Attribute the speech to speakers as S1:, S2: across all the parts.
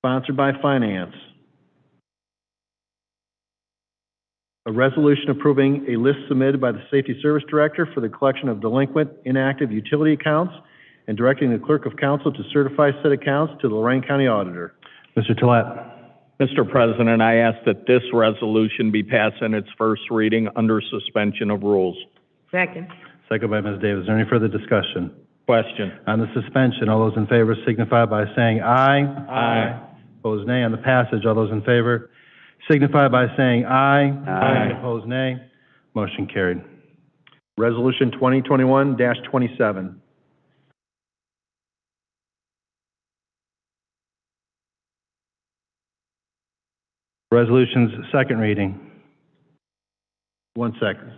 S1: sponsored by Finance. A resolution approving a list submitted by the Safety Service Director for the collection of delinquent inactive utility accounts and directing the Clerk of Council to certify said accounts to the Lorraine County Auditor.
S2: Mr. Tolet.
S3: Mr. President, I ask that this resolution be passed in its first reading under suspension of rules.
S4: Second.
S2: Second by Ms. Davis. Is there any further discussion?
S3: Question.
S2: On the suspension, all those in favor signify by saying aye.
S3: Aye.
S2: Opposed, nay. On the passage, all those in favor signify by saying aye.
S3: Aye.
S2: Opposed, nay. Motion carried.
S1: Resolution 2021-27.
S2: Resolutions, second reading.
S1: One second.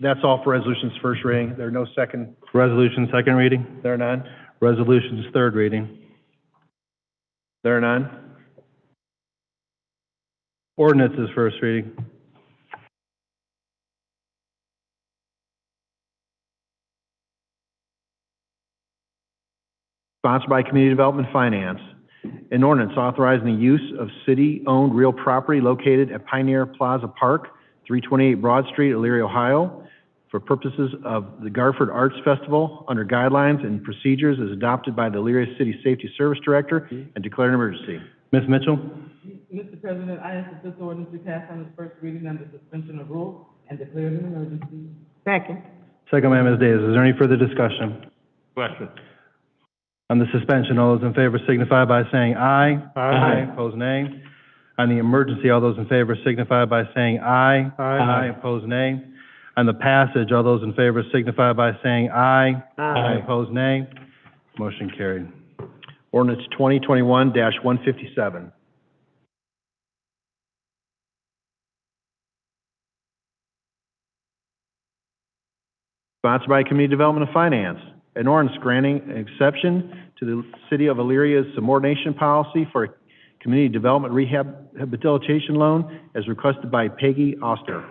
S1: That's all for resolutions first reading. There are no second,
S2: Resolution, second reading.
S1: there are none?
S2: Resolutions, third reading.
S1: There are none?
S2: Ordinances, first reading.
S1: Sponsored by Community Development Finance. An ordinance authorizing the use of city-owned real property located at Pioneer Plaza Park, 328 Broad Street, Elyria, Ohio, for purposes of the Garford Arts Festival under guidelines and procedures as adopted by the Elyria City Safety Service Director and declared an emergency.
S2: Ms. Mitchell?
S5: Mr. President, I ask that this ordinance be passed on its first reading under suspension of rules and declared an emergency.
S4: Second.
S2: Second by Ms. Davis. Is there any further discussion?
S3: Question.
S2: On the suspension, all those in favor signify by saying aye. Aye. Opposed, nay. On the emergency, all those in favor signify by saying aye. Aye. Opposed, nay. On the passage, all those in favor signify by saying aye. Aye. Opposed, nay. Motion carried.
S1: Ordinance 2021-157. Sponsored by Community Development and Finance. An ordinance granting an exception to the City of Illyria's subordination policy for a community development rehab rehabilitation loan as requested by Peggy Oster.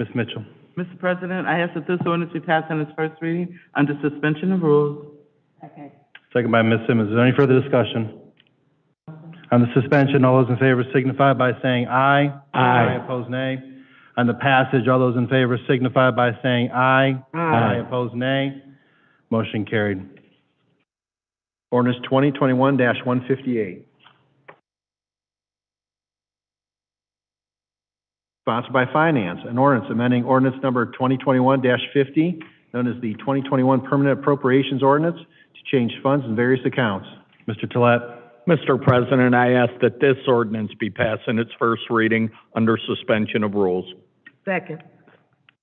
S2: Ms. Mitchell?
S5: Mr. President, I ask that this ordinance be passed on its first reading under suspension of rules.
S2: Second by Ms. Simmons. Is there any further discussion? On the suspension, all those in favor signify by saying aye. Aye. Opposed, nay. On the passage, all those in favor signify by saying aye. Aye. Opposed, nay. Motion carried.
S1: Ordinance 2021-158. Sponsored by Finance, an ordinance amending ordinance number 2021-50, known as the 2021 Permanent Appropriations Ordinance, to change funds in various accounts.
S2: Mr. Tolet.
S3: Mr. President, I ask that this ordinance be passed in its first reading under suspension of rules.
S4: Second.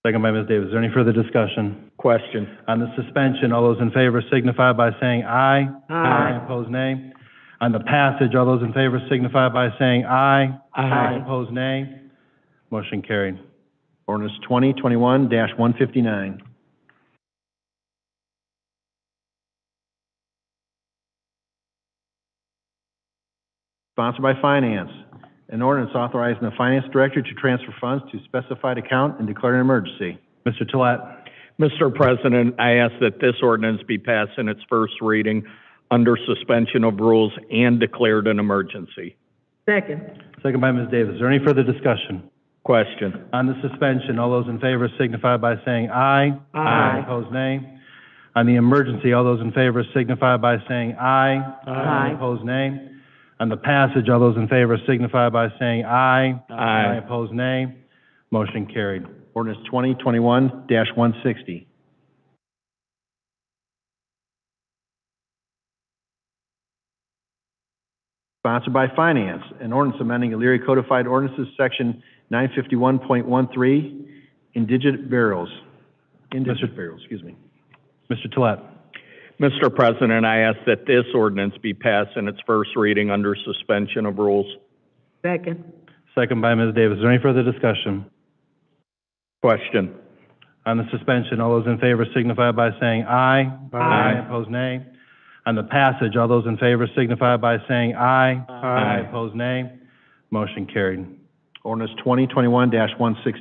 S2: Second by Ms. Davis. Is there any further discussion?
S3: Question.
S2: On the suspension, all those in favor signify by saying aye. Aye. Opposed, nay. On the passage, all those in favor signify by saying aye. Aye. Opposed, nay. Motion carried.
S1: Ordinance 2021-159. Sponsored by Finance, an ordinance authorizing the Finance Director to transfer funds to specified account and declare an emergency.
S2: Mr. Tolet.
S3: Mr. President, I ask that this ordinance be passed in its first reading under suspension of rules and declared an emergency.
S4: Second.
S2: Second by Ms. Davis. Is there any further discussion?
S3: Question.
S2: On the suspension, all those in favor signify by saying aye. Aye. Opposed, nay. On the emergency, all those in favor signify by saying aye.
S4: Aye.
S2: Opposed, nay. On the passage, all those in favor signify by saying aye.
S3: Aye.
S2: Opposed, nay. Motion carried.
S1: Ordinance 2021-160. Sponsored by Finance, an ordinance amending Elyria Codified Ordinances, Section 951.13, indigent burials. Indigent burials, excuse me.
S2: Mr. Tolet.
S3: Mr. President, I ask that this ordinance be passed in its first reading under suspension of rules.
S4: Second.
S2: Second by Ms. Davis. Is there any further discussion?
S3: Question.
S2: On the suspension, all those in favor signify by saying aye. Aye. Opposed, nay. On the passage, all those in favor signify by saying aye. Aye. Opposed, nay. Motion carried.
S1: Ordinance 2021-160.